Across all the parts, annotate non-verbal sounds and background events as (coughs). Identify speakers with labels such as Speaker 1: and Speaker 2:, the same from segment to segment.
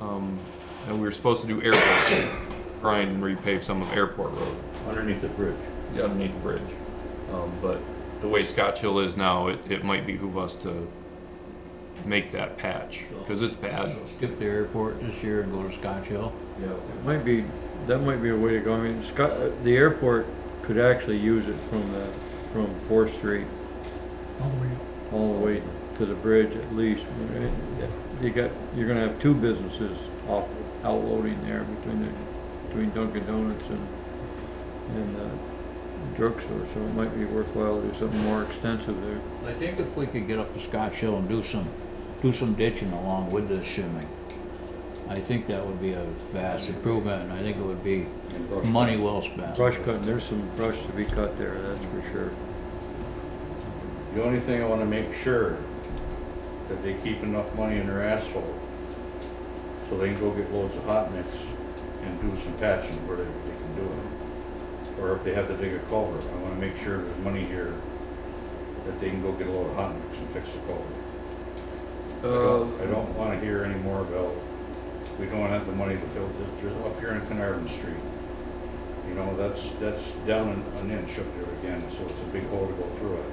Speaker 1: Um, and we were supposed to do airport, (coughs) grind and repave some of airport road,
Speaker 2: underneath the bridge.
Speaker 1: yeah, underneath the bridge. Um, but the way Scotch Hill is now, it, it might behoove us to make that patch, cause it's bad.
Speaker 2: So Skip the airport this year and go to Scotch Hill.
Speaker 1: Yeah.
Speaker 3: It Might be, that might be a way to go. I mean, Scott, uh, the airport could actually use it from the, from Fourth Street
Speaker 4: all the way up.
Speaker 3: all the way to the bridge at least. I mean, You got, you're gonna have two businesses off, outloading there between the, between Dunkin' Donuts and, and, uh, drugstore, so it might be worthwhile to do something more extensive there.
Speaker 2: I think if we could get up to Scotch Hill and do some, do some ditching along with the shimming, I think that would be a vast improvement, and I think it would be money well spent.
Speaker 3: Brush cutting, there's some brush to be cut there, that's for sure.
Speaker 5: The only thing I wanna make sure, that they keep enough money in their asphalt, so they can go get loads of hot mix and do some patching where they, they can do it. Or if they have to dig a culvert, I wanna make sure there's money here, that they can go get a load of hot mix and fix the culvert. I
Speaker 1: Uh,
Speaker 5: don't- I don't wanna hear any more about, we don't have the money to fill, this- just up here in Carnarvon Street. You know, that's, that's down an an inch up there again, so it's a big hole to go through it.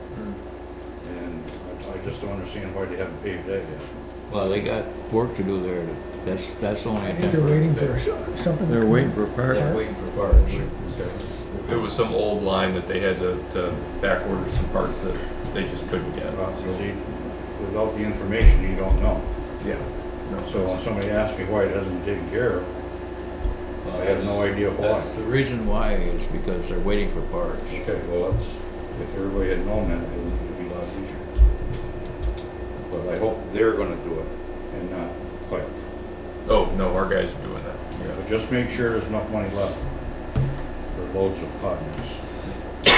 Speaker 5: And I- I just don't understand why they haven't paved that yet.
Speaker 2: Well, they got work to do there, to- that's, that's only
Speaker 4: I
Speaker 2: a
Speaker 4: think they're
Speaker 2: temporary
Speaker 4: waiting
Speaker 2: fix.
Speaker 4: for something. to
Speaker 3: They're
Speaker 4: come
Speaker 3: waiting
Speaker 4: in.
Speaker 3: for a part.
Speaker 2: They're waiting for parts.
Speaker 1: It was some old line that they had to, to back order some parts that they just couldn't get.
Speaker 5: Well, you see, without the information, you don't know.
Speaker 1: Yeah.
Speaker 5: So when somebody asks me why it hasn't been taken care of, I have no idea why.
Speaker 2: Uh, That's the reason why is because they're waiting for parts.
Speaker 5: Okay, well, that's, if everybody had known that, it would be a lot easier. But I hope they're gonna do it and not Pike.
Speaker 1: Oh, no, our guys are doing that.
Speaker 5: But just make sure there's enough money left for loads of hot mix.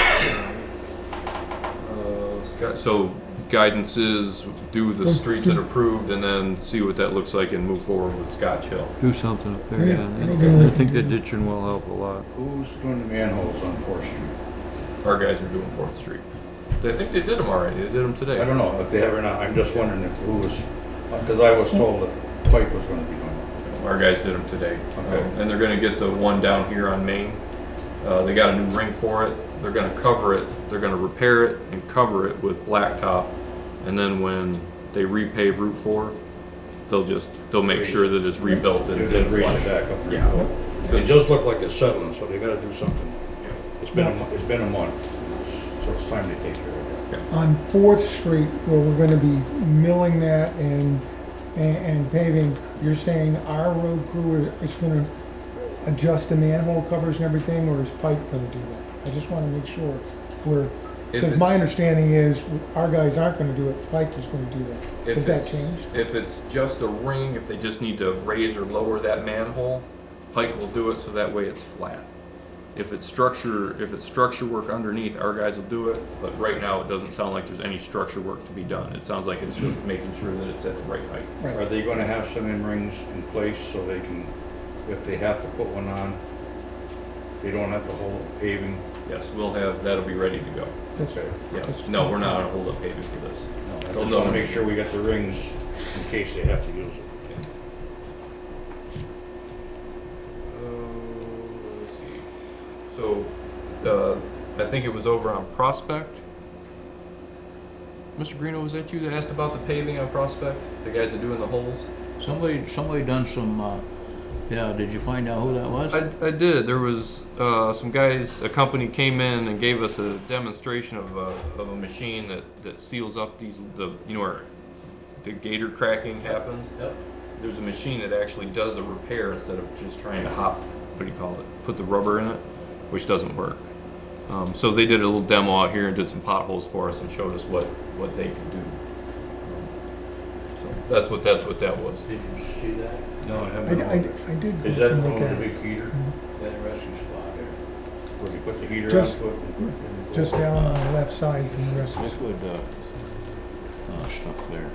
Speaker 1: Uh, Scott- So guidance is do the streets that are approved and then see what that looks like and move forward with Scotch Hill.
Speaker 3: Do something up there,
Speaker 4: Yeah,
Speaker 3: yeah.
Speaker 4: anything we
Speaker 3: I think
Speaker 4: can
Speaker 3: the
Speaker 4: do.
Speaker 3: ditching will help a lot.
Speaker 5: Who's doing the manholes on Fourth Street?
Speaker 1: Our guys are doing Fourth Street. I think they did them already. They did them
Speaker 5: I
Speaker 1: today.
Speaker 5: don't know if they have or not, I'm just wondering if who was, because I was told that Pike was gonna be doing it.
Speaker 1: Our guys did them today.
Speaker 5: Okay.
Speaker 1: Um, And they're gonna get the one down here on Main. Uh, they got a new ring for it. They're gonna cover it. They're gonna repair it and cover it with blacktop. And then when they repave Route Four, they'll just, they'll make sure that it's rebuilt and
Speaker 5: They
Speaker 1: and
Speaker 5: raised it
Speaker 1: flush.
Speaker 5: back up. and rebuilt. It does look like it's settling, so they gotta do something. It's been, a mo- it's been a month, so it's time to take care of it.
Speaker 4: On Fourth Street, where we're gonna be milling that and, and- and paving, you're saying our road crew is, is gonna adjust the manhole covers and everything, or is Pike gonna do that? I just wanna make sure we're,
Speaker 1: If
Speaker 4: because my
Speaker 1: it's-
Speaker 4: understanding is, our guys aren't gonna do it, Pike is gonna do that.
Speaker 1: If
Speaker 4: Has that
Speaker 1: it's-
Speaker 4: changed?
Speaker 1: If it's just a ring, if they just need to raise or lower that manhole, Pike will do it so that way it's flat. If it's structure, if it's structure work underneath, our guys will do it, but right now it doesn't sound like there's any structure work to be done. It sounds like it's just making sure that it's at the right height.
Speaker 5: Are
Speaker 4: Right,
Speaker 5: they gonna have some in rings in place so they can, if they have to put one on, they don't have to hold paving?
Speaker 1: Yes, we'll have, that'll be ready to go.
Speaker 4: that's,
Speaker 5: Okay.
Speaker 1: Yeah,
Speaker 4: that's.
Speaker 1: no, we're not on hold up paving for this.
Speaker 5: No, I just
Speaker 1: Don't
Speaker 5: wanna
Speaker 1: know.
Speaker 5: make sure we got the rings in case they have to use it.
Speaker 1: Uh, So, uh, I think it was over on Prospect. Mr. Greeno, was that you that asked about the paving on Prospect? The guys that doing the holes?
Speaker 2: Somebody, somebody done some, uh, yeah, did you find out who that was?
Speaker 1: I, I did. There was uh, some guys, a company came in and gave us a demonstration of a, of a machine that, that seals up these, the, you know, where the gator cracking happens.
Speaker 2: Yep.
Speaker 1: There's a machine that actually does a repair instead of just trying to hop, what do you call it, put the rubber in it, which doesn't work. Um, so they did a little demo out here and did some potholes for us and showed us what, what they could do. Um, So that's what, that's what that was.
Speaker 2: Did you see that?
Speaker 5: No, I
Speaker 4: I,
Speaker 5: haven't.
Speaker 4: I, I did.
Speaker 5: Is
Speaker 4: go
Speaker 5: that
Speaker 4: something
Speaker 5: one
Speaker 4: like
Speaker 5: of the
Speaker 4: that.
Speaker 5: big heater,
Speaker 2: That rescue spot there.
Speaker 5: where you put the heater
Speaker 4: Just-
Speaker 5: onto it? and-
Speaker 4: Just down on the left side from the rest of us.
Speaker 2: liquid uh, uh, stuff there.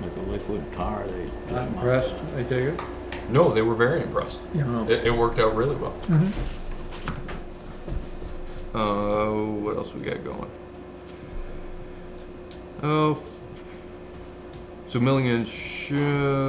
Speaker 2: Like a liquid tar they
Speaker 3: Not
Speaker 2: just mount.
Speaker 3: impressed, I take it?
Speaker 1: No, they were very impressed.
Speaker 4: Yeah.
Speaker 1: It, it worked out really well.
Speaker 5: Mm-hmm.
Speaker 4: Mhm.
Speaker 1: Uh, what else we got going? Uh, Oh, f- so Milligan should.